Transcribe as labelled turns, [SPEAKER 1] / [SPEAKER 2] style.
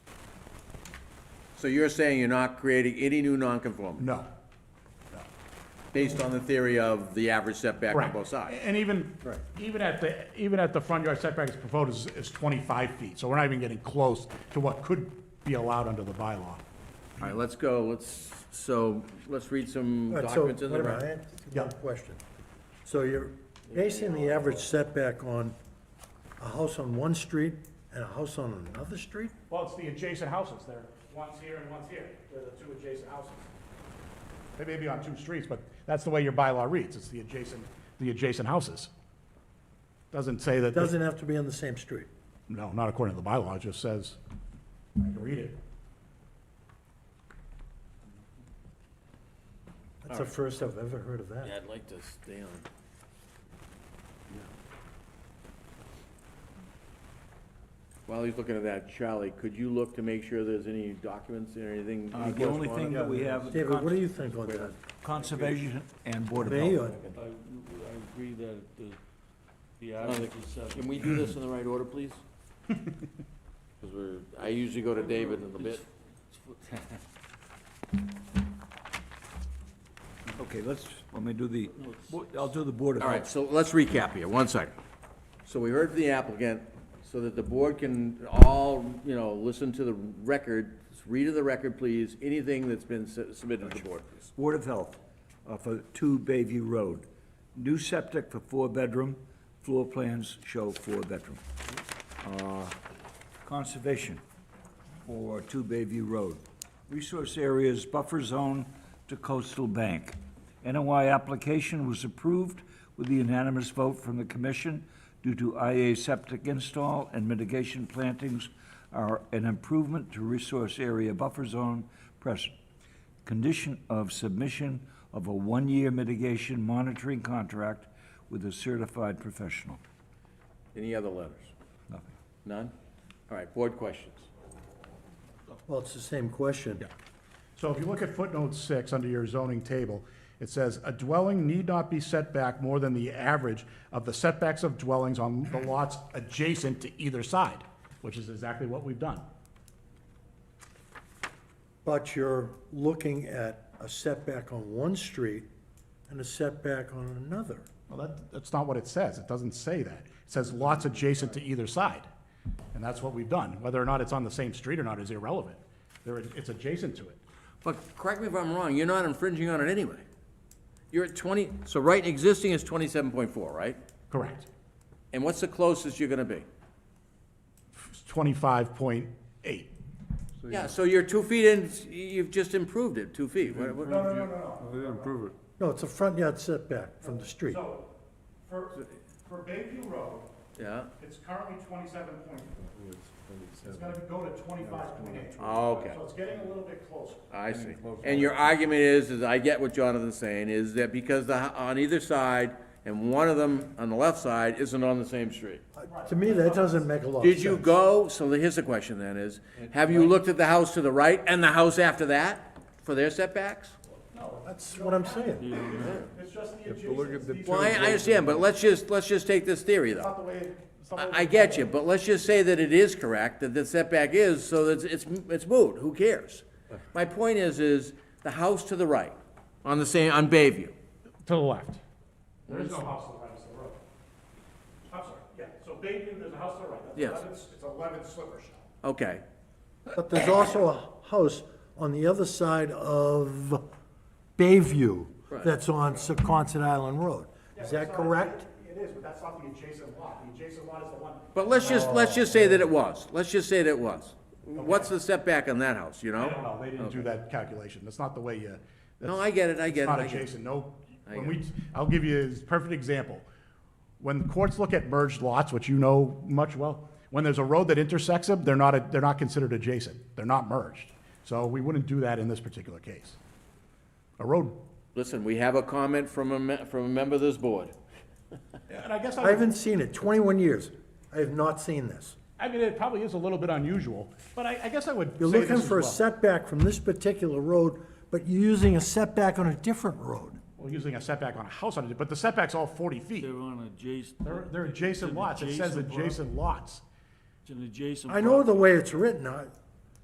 [SPEAKER 1] So you're saying you're not creating any new nonconformity,
[SPEAKER 2] No.
[SPEAKER 1] based on the theory of the average setback on
[SPEAKER 2] Right.
[SPEAKER 1] both sides?
[SPEAKER 2] And even, even at the, even at the front yard setback is proposed is, is 25 feet, so we're not even getting close to what could be allowed under the bylaw.
[SPEAKER 1] All right, let's go, let's, so, let's read some
[SPEAKER 3] All right, so,
[SPEAKER 1] documents in
[SPEAKER 3] wait
[SPEAKER 1] the
[SPEAKER 3] a minute,
[SPEAKER 1] record.
[SPEAKER 3] I have
[SPEAKER 2] Yeah.
[SPEAKER 3] one question. So you're basing the average setback on a house on one street and a house on another street?
[SPEAKER 2] Well, it's the adjacent houses, there. one's here and one's here, they're the two adjacent houses. They may be on two streets, but that's the way your bylaw reads, it's the adjacent, the adjacent houses. Doesn't say that.
[SPEAKER 3] Doesn't have to be on the same street.
[SPEAKER 2] No, not according to the bylaw, it just says, I can read it.
[SPEAKER 3] That's the first I've ever heard of that.
[SPEAKER 1] I'd like to stay on. While he's looking at that, Charlie, could you look to make sure there's any documents or anything?
[SPEAKER 4] Uh,
[SPEAKER 1] any
[SPEAKER 4] The only thing
[SPEAKER 1] correspondence?
[SPEAKER 4] that we have,
[SPEAKER 3] David, what do you think on that?
[SPEAKER 4] Conservation and Board of
[SPEAKER 3] Me,
[SPEAKER 4] Health.
[SPEAKER 3] or-
[SPEAKER 5] I, I agree that the, the
[SPEAKER 1] average
[SPEAKER 5] average is
[SPEAKER 1] Can
[SPEAKER 5] seven.
[SPEAKER 1] we do this in the right order, please? Because we're, I usually go to David in a bit.
[SPEAKER 4] Okay, let's, let me do the,
[SPEAKER 5] No, it's-
[SPEAKER 4] Bo- I'll do the Board of
[SPEAKER 1] All right,
[SPEAKER 4] Health.
[SPEAKER 1] so let's recap here, one second. So we heard from the applicant, so that the board can all, you know, listen to the record, read of the record, please, anything that's been su- submitted to the board, please.
[SPEAKER 4] Board of Health uh, for 2 Bayview Road. New septic for four-bedroom, floor plans show four-bedroom. Uh, Conservation for 2 Bayview Road. Resource areas buffer zone to coastal bank. NOI application was approved with the unanimous vote from the commission due to IA septic install and mitigation plantings are an improvement to resource area buffer zone present. Condition of submission of a one-year mitigation monitoring contract with a certified professional.
[SPEAKER 1] Any other letters?
[SPEAKER 4] Nothing.
[SPEAKER 1] None? All right, board questions.
[SPEAKER 3] Well, it's the same question.
[SPEAKER 2] So if you look at footnote six under your zoning table, it says, "A dwelling need not be set back more than the average of the setbacks of dwellings on the lots adjacent to either side," which is exactly what we've done.
[SPEAKER 3] But you're looking at a setback on one street and a setback on another.
[SPEAKER 2] Well, that, that's not what it says. It doesn't say that. It says lots adjacent to either side. And that's what we've done. Whether or not it's on the same street or not is irrelevant. There, it's adjacent to it.
[SPEAKER 1] But correct me if I'm wrong, you're not infringing on it anyway. You're at twenty, so right existing is twenty-seven point four, right?
[SPEAKER 2] Correct.
[SPEAKER 1] And what's the closest you're gonna be?
[SPEAKER 2] It's twenty-five point eight.
[SPEAKER 1] Yeah, so you're two feet in, you've just improved it, two feet. What- what-
[SPEAKER 5] They didn't prove it.
[SPEAKER 3] No, it's a front yard setback from the street.
[SPEAKER 2] So, for, for Bayview Road,
[SPEAKER 1] Yeah,
[SPEAKER 2] It's currently twenty-seven point four. It's gonna go to twenty-five point eight.
[SPEAKER 1] Oh, okay.
[SPEAKER 2] So it's getting a little bit closer.
[SPEAKER 1] I see. And your argument is, is I get what Jonathan's saying, is that because the, h- on either side, and one of them on the left side isn't on the same street.
[SPEAKER 3] Uh, To me, that doesn't make a lot of sense.
[SPEAKER 1] Did you go, so the- here's the question then is, have you looked at the house to the right and the house after that for their setbacks?
[SPEAKER 3] That's what I'm saying.
[SPEAKER 2] It's just the
[SPEAKER 5] look at the-
[SPEAKER 2] adjacencies,
[SPEAKER 1] Well, I, I understand, but let's just, let's just take this theory
[SPEAKER 2] not
[SPEAKER 1] though.
[SPEAKER 2] the way, it's not the way.
[SPEAKER 1] I, I get you, but let's just say that it is correct, that the setback is, so that it's, it's moot, who cares? My point is, is the house to the right, on the same, on Bayview,
[SPEAKER 2] To the left. There is no house to the right, it's the road. I'm sorry, yeah, so Bayview, there's a house to the right. That's
[SPEAKER 1] Yes.
[SPEAKER 2] 11 It's eleven sliver shell.
[SPEAKER 1] okay.
[SPEAKER 3] But there's also a house on the other side of Bayview
[SPEAKER 1] Right.
[SPEAKER 3] that's on Secaucet Island Road. Is that correct?
[SPEAKER 2] It is, but that's not the adjacent lot. The adjacent lot is the one.
[SPEAKER 1] But let's just, let's just say that it was, let's just say that it was. What's the setback on that house, you know?
[SPEAKER 2] No, they didn't do that calculation. That's not the way you.
[SPEAKER 1] No, I get it, I get
[SPEAKER 2] It's
[SPEAKER 1] it,
[SPEAKER 2] not
[SPEAKER 1] I get it.
[SPEAKER 2] adjacent, no,
[SPEAKER 1] I
[SPEAKER 2] when
[SPEAKER 1] get
[SPEAKER 2] we, I'll give you a perfect example. When courts look at merged lots, which you know much well, when there's a road that intersects them, they're not, a- they're not considered adjacent, they're not merged. So we wouldn't do that in this particular case. A road,
[SPEAKER 1] Listen, we have a comment from a, me- from a member of this board.
[SPEAKER 2] and I guess,
[SPEAKER 3] I
[SPEAKER 2] I would-
[SPEAKER 3] haven't seen it, 21 years. I have not seen this.
[SPEAKER 2] I mean, it probably is a little bit unusual, but I, I guess I would
[SPEAKER 3] You're
[SPEAKER 2] say
[SPEAKER 3] looking
[SPEAKER 2] this as
[SPEAKER 3] for a
[SPEAKER 2] well.
[SPEAKER 3] setback from this particular road, but you're using a setback on a different road.
[SPEAKER 2] Well, using a setback on a house on it, but the setback's all forty feet.
[SPEAKER 5] They're on adjacent.
[SPEAKER 2] They're, they're adjacent lots, it says adjacent lots.
[SPEAKER 5] It's an adjacent.
[SPEAKER 3] I know the
[SPEAKER 5] property.
[SPEAKER 3] way it's written. I-